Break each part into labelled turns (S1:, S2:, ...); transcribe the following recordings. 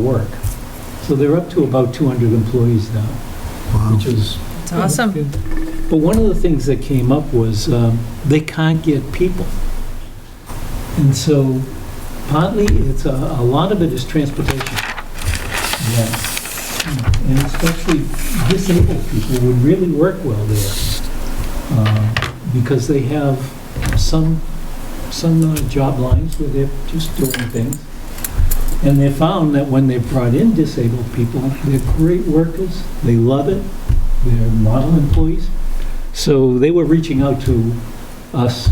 S1: work. So they're up to about 200 employees now, which is...
S2: It's awesome.
S1: But one of the things that came up was um, they can't get people. And so partly, it's, a a lot of it is transportation. that, And especially disabled people would really work well there uh, because they have some, some uh, job lines where they're just doing things. And they found that when they brought in disabled people, they're great workers, they love it, they're model employees. So they were reaching out to us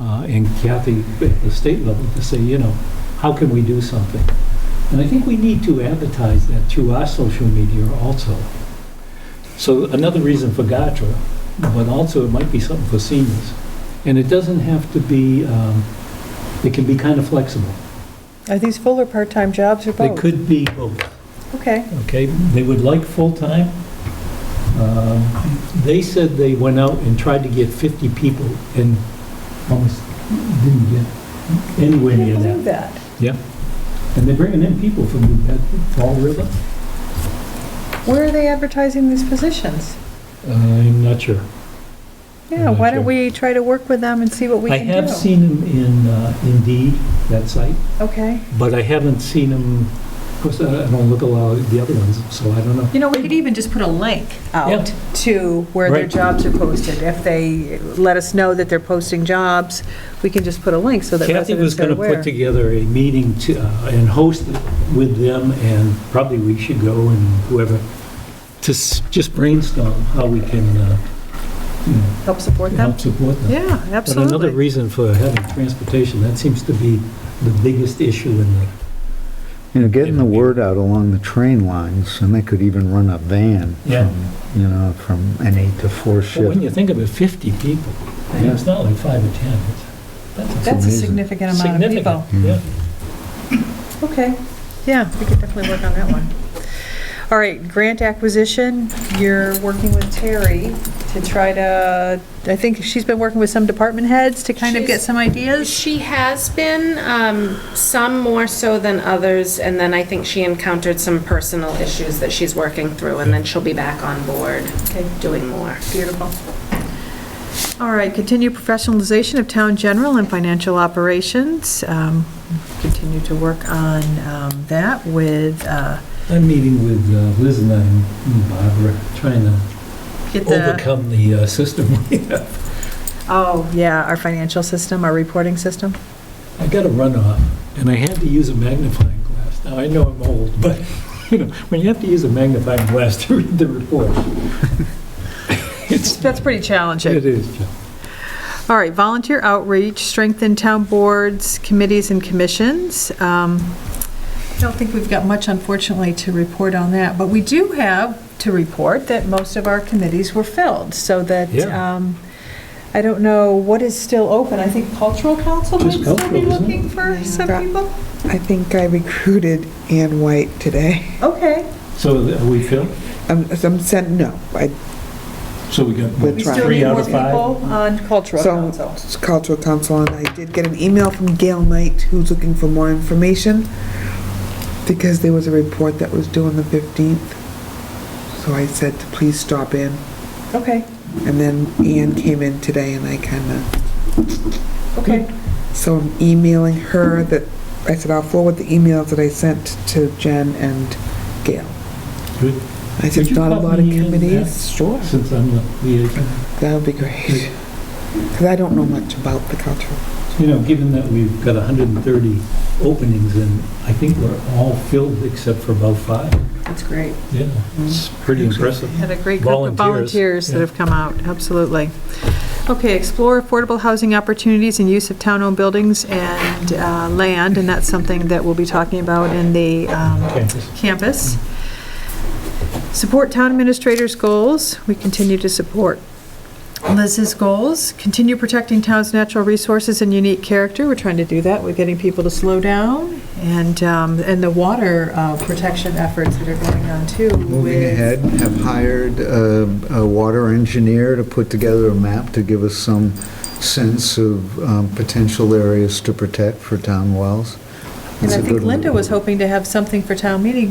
S1: uh, and Kathy at the state level to say, you know, how can we do something? And I think we need to advertise that through our social media also. So another reason for GATRA, but also it might be something for seniors. And it doesn't have to be, um, it can be kind of flexible.
S3: Are these full or part-time jobs or
S1: They
S3: both?
S1: could be both.
S3: Okay.
S1: Okay, they would like full-time. Um, They said they went out and tried to get 50 people and almost didn't get anywhere
S3: Can
S1: near
S3: you believe
S1: that.
S3: that?
S1: And they're bringing in people from New Bedford, Fall River.
S3: Where are they advertising these positions?
S1: Uh, I'm not sure.
S3: Yeah,
S1: I'm
S3: why
S1: not
S3: don't
S1: sure.
S3: we try to work with them and see what we
S1: I
S3: can do?
S1: have seen them in uh, Indeed, that site,
S3: Okay.
S1: but I haven't seen them, of course, I I don't look a lot at the other ones, so I don't know.
S2: You know, we could even just put a link
S3: Out to where their
S1: Right.
S3: jobs are posted. If they let us know that they're posting jobs, we can just put a link so that
S1: Kathy was
S3: residents are
S1: going to
S3: aware.
S1: put together a meeting to, uh, and host it with them, and probably we should go and whoever, to s- just brainstorm how we can, uh, you know,
S3: Help support them?
S1: help support them.
S3: Yeah,
S1: But another
S3: absolutely.
S1: reason for having transportation, that seems to be the biggest issue in the,
S4: You know, getting the word out along the train lines, and they could even run a van
S1: Yeah.
S4: from, you know, from an eight to four
S1: but when
S4: shift.
S1: you think of it, 50 people, I mean, it's not like five or 10. it's- That's
S3: That's a
S4: amazing.
S3: significant amount of people.
S1: significant, yeah.
S3: Okay, yeah, we could definitely work on that one. All right, grant acquisition, you're working with Terry to try to, I think she's been working with some department heads to kind of get
S5: She's-
S3: some ideas?
S5: She has been, um, some more so than others, and then I think she encountered some personal issues that she's working through, and then she'll be back on board
S3: Okay,
S5: doing more.
S3: beautiful. All right, continue professionalization of town general and financial operations. Um, Continue to work on um, that with, uh,
S1: I'm meeting with uh, Liz and I and Barbara, trying to
S3: get the,
S1: overcome the uh, system we have.
S3: oh, yeah, our financial system, our reporting system.
S1: I got a runoff, and I had to use a magnifying glass. Now, I know I'm old, but, you know, when you have to use a magnifying glass to read the report, it's,
S3: That's pretty challenging.
S1: it is, Joe.
S3: All right, volunteer outreach, strengthen town boards, committees, and commissions. Um, I don't think we've got much, unfortunately, to report on that, but we do have to report that most of our committees were filled, so that,
S1: Yeah.
S3: um, I don't know what is still open. I think cultural council might
S1: Just
S3: still be
S1: cultural, isn't it?
S3: looking for some
S6: Yeah.
S3: people.
S6: I think I recruited Ann White today.
S3: Okay,
S1: So th- are we filled?
S6: I'm, I'm sent, no, I,
S1: So we got
S6: We're
S1: what,
S3: we still
S1: three
S3: need
S1: out
S3: more
S1: of
S3: people
S1: five?
S3: on cultural
S6: So-
S3: council.
S6: it's cultural council, and I did get an email from Gail Knight, who's looking for more information, because there was a report that was due on the 15th. So I said to please stop in,
S3: Okay,
S6: and then Ann came in today, and I kind of,
S3: okay.
S6: so I'm emailing her that, I said I'll forward the emails that I sent to Jen and Gail.
S1: Good.
S6: I said,
S1: Could you
S6: not a
S1: pop
S6: lot of
S1: me in
S6: committees. Sure.
S1: Since I'm the liaison.
S6: That would be great. Because I don't know much about the cultural.
S1: You know, given that we've got 130 openings, and I think we're all filled except for about five.
S3: That's great.
S1: Yeah, it's
S3: Mm-hmm.
S1: pretty impressive.
S3: Had a great group of
S1: Volunteers,
S3: volunteers that
S1: yeah.
S3: have come out, absolutely. Okay, explore affordable housing opportunities and use of town-owned buildings and uh, land, and that's something that we'll be talking about in the um,
S1: Okay.
S3: campus. Support town administrators' goals, we continue to support Liz's goals. Continue protecting town's natural resources and unique character, we're trying to do that, we're getting people to slow down, and, um, and the water uh, protection efforts that are going on too.
S4: Moving
S3: with-
S4: ahead, have hired um, a water engineer to put together a map to give us some sense of um, potential areas to protect for town wells.
S3: And
S4: It's
S3: I
S4: a
S3: think
S4: good one.
S3: Linda was hoping to have something for town meeting